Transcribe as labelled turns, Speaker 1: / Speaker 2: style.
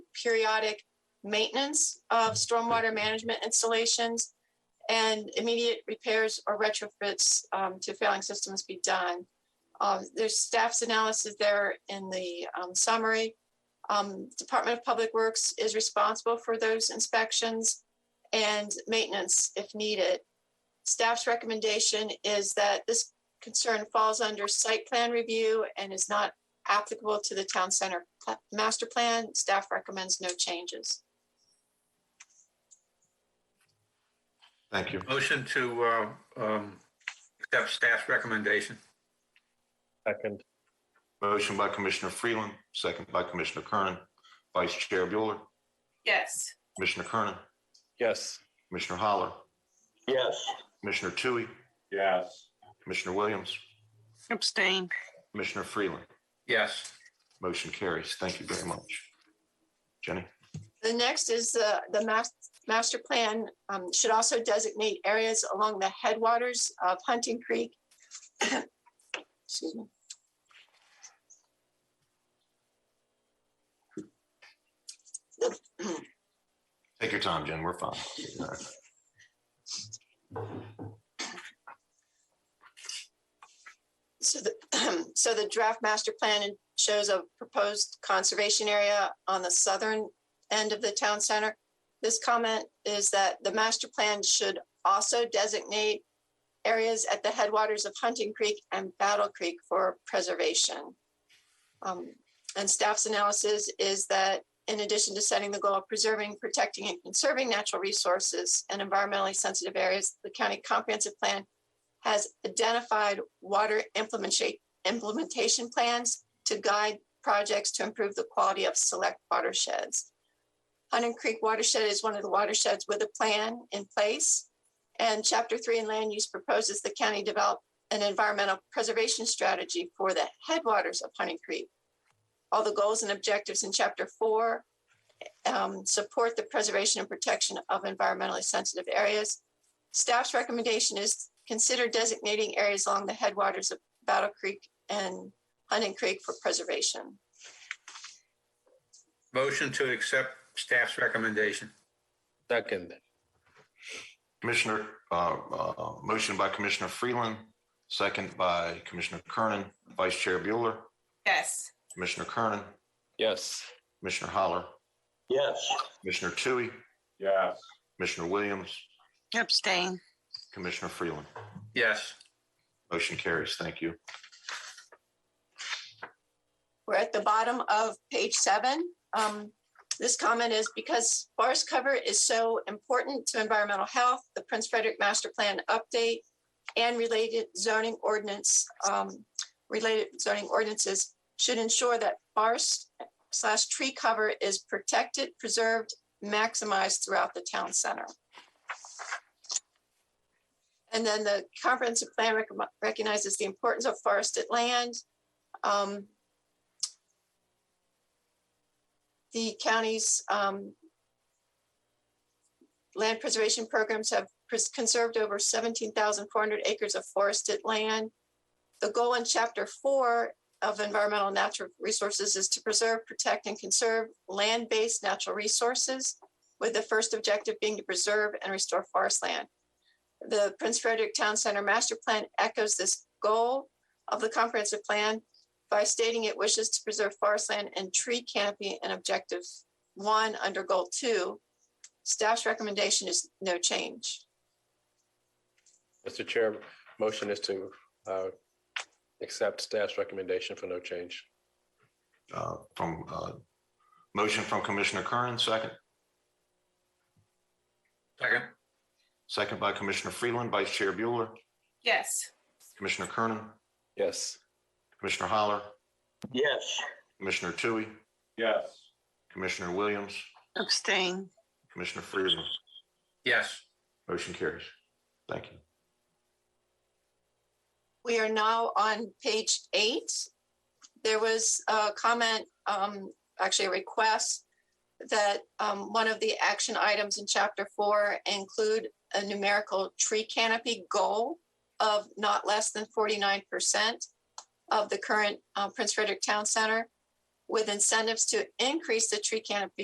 Speaker 1: periodic maintenance of stormwater management installations and immediate repairs or retrofits um, to failing systems be done. Um, There's staff's analysis there in the um, summary. Um, Department of Public Works is responsible for those inspections and maintenance if needed. Staff's recommendation is that this concern falls under site plan review and is not applicable to the town center pla- master plan. Staff recommends no changes.
Speaker 2: Thank you.
Speaker 3: Motion to uh, um, accept staff's recommendation.
Speaker 4: Second,
Speaker 2: Motion by Commissioner Freeland, second by Commissioner Kernan. Vice Chair Bueller,
Speaker 5: yes,
Speaker 2: Commissioner Kernan,
Speaker 4: yes.
Speaker 2: Commissioner Holler,
Speaker 6: yes.
Speaker 2: Commissioner Tui,
Speaker 4: Yes.
Speaker 2: Commissioner Williams,
Speaker 7: abstain,
Speaker 2: Commissioner Freeland.
Speaker 3: Yes.
Speaker 2: Motion carries. Thank you very much. Jenny?
Speaker 1: The next is the, the mas- master plan um, should also designate areas along the headwaters of Hunting Creek. Excuse me.
Speaker 2: Take your time, Jen. We're fine.
Speaker 1: So the, so the draft master plan shows a proposed conservation area on the southern end of the town center. This comment is that the master plan should also designate areas at the headwaters of Hunting Creek and Battle Creek for preservation. Um, And staff's analysis is that in addition to setting the goal of preserving, protecting, and conserving natural resources and environmentally sensitive areas, the county comprehensive plan has identified water implementation, implementation plans to guide projects to improve the quality of select watersheds. Hunting Creek watershed is one of the watersheds with a plan in place. And chapter three in land use proposes the county develop an environmental preservation strategy for the headwaters of Hunting Creek. All the goals and objectives in chapter four um, support the preservation and protection of environmentally sensitive areas. Staff's recommendation is consider designating areas along the headwaters of Battle Creek and Hunting Creek for preservation.
Speaker 3: Motion to accept staff's recommendation.
Speaker 4: Second,
Speaker 2: Commissioner, uh, uh, motion by Commissioner Freeland, second by Commissioner Kernan. Vice Chair Bueller,
Speaker 5: yes,
Speaker 2: Commissioner Kernan,
Speaker 4: yes.
Speaker 2: Commissioner Holler,
Speaker 6: Yes,
Speaker 2: Commissioner Tui,
Speaker 4: Yes.
Speaker 2: Commissioner Williams,
Speaker 7: abstain,
Speaker 2: Commissioner Freeland.
Speaker 3: Yes.
Speaker 2: Motion carries. Thank you.
Speaker 1: We're at the bottom of page seven. Um, this comment is because forest cover is so important to environmental health, the Prince Frederick Master Plan update and related zoning ordinance, um, related zoning ordinances should ensure that forest slash tree cover is protected, preserved, maximized throughout the town center. And then the comprehensive plan recom- recognizes the importance of forested land. Um, the county's um, land preservation programs have pres- conserved over 17,400 acres of forested land. The goal in Chapter 4 of Environmental and Natural Resources is to preserve, protect, and conserve land-based natural resources, with the first objective being to preserve and restore forest land. The Prince Frederick Town Center Master Plan echoes this goal of the comprehensive plan by stating it wishes to preserve forest land and tree canopy in objective one under goal two. Staff's recommendation is no change.
Speaker 4: Mr. Chair, motion is to uh, accept staff's recommendation for no change.
Speaker 2: Uh, From, uh, motion from Commissioner Kernan, second,
Speaker 3: Second.
Speaker 2: second by Commissioner Freeland, Vice Chair Bueller,
Speaker 5: yes,
Speaker 2: Commissioner Kernan,
Speaker 4: Yes.
Speaker 2: Commissioner Holler,
Speaker 6: yes,
Speaker 2: Commissioner Tui,
Speaker 4: Yes.
Speaker 2: Commissioner Williams,
Speaker 7: abstain,
Speaker 2: Commissioner Freeland.
Speaker 3: Yes.
Speaker 2: Motion carries. Thank you.
Speaker 1: We are now on page eight. There was a comment, um, actually a request that, um, one of the action items in chapter four include a numerical tree canopy goal of not less than forty-nine percent of the current, uh, Prince Frederick Town Center with incentives to increase the tree canopy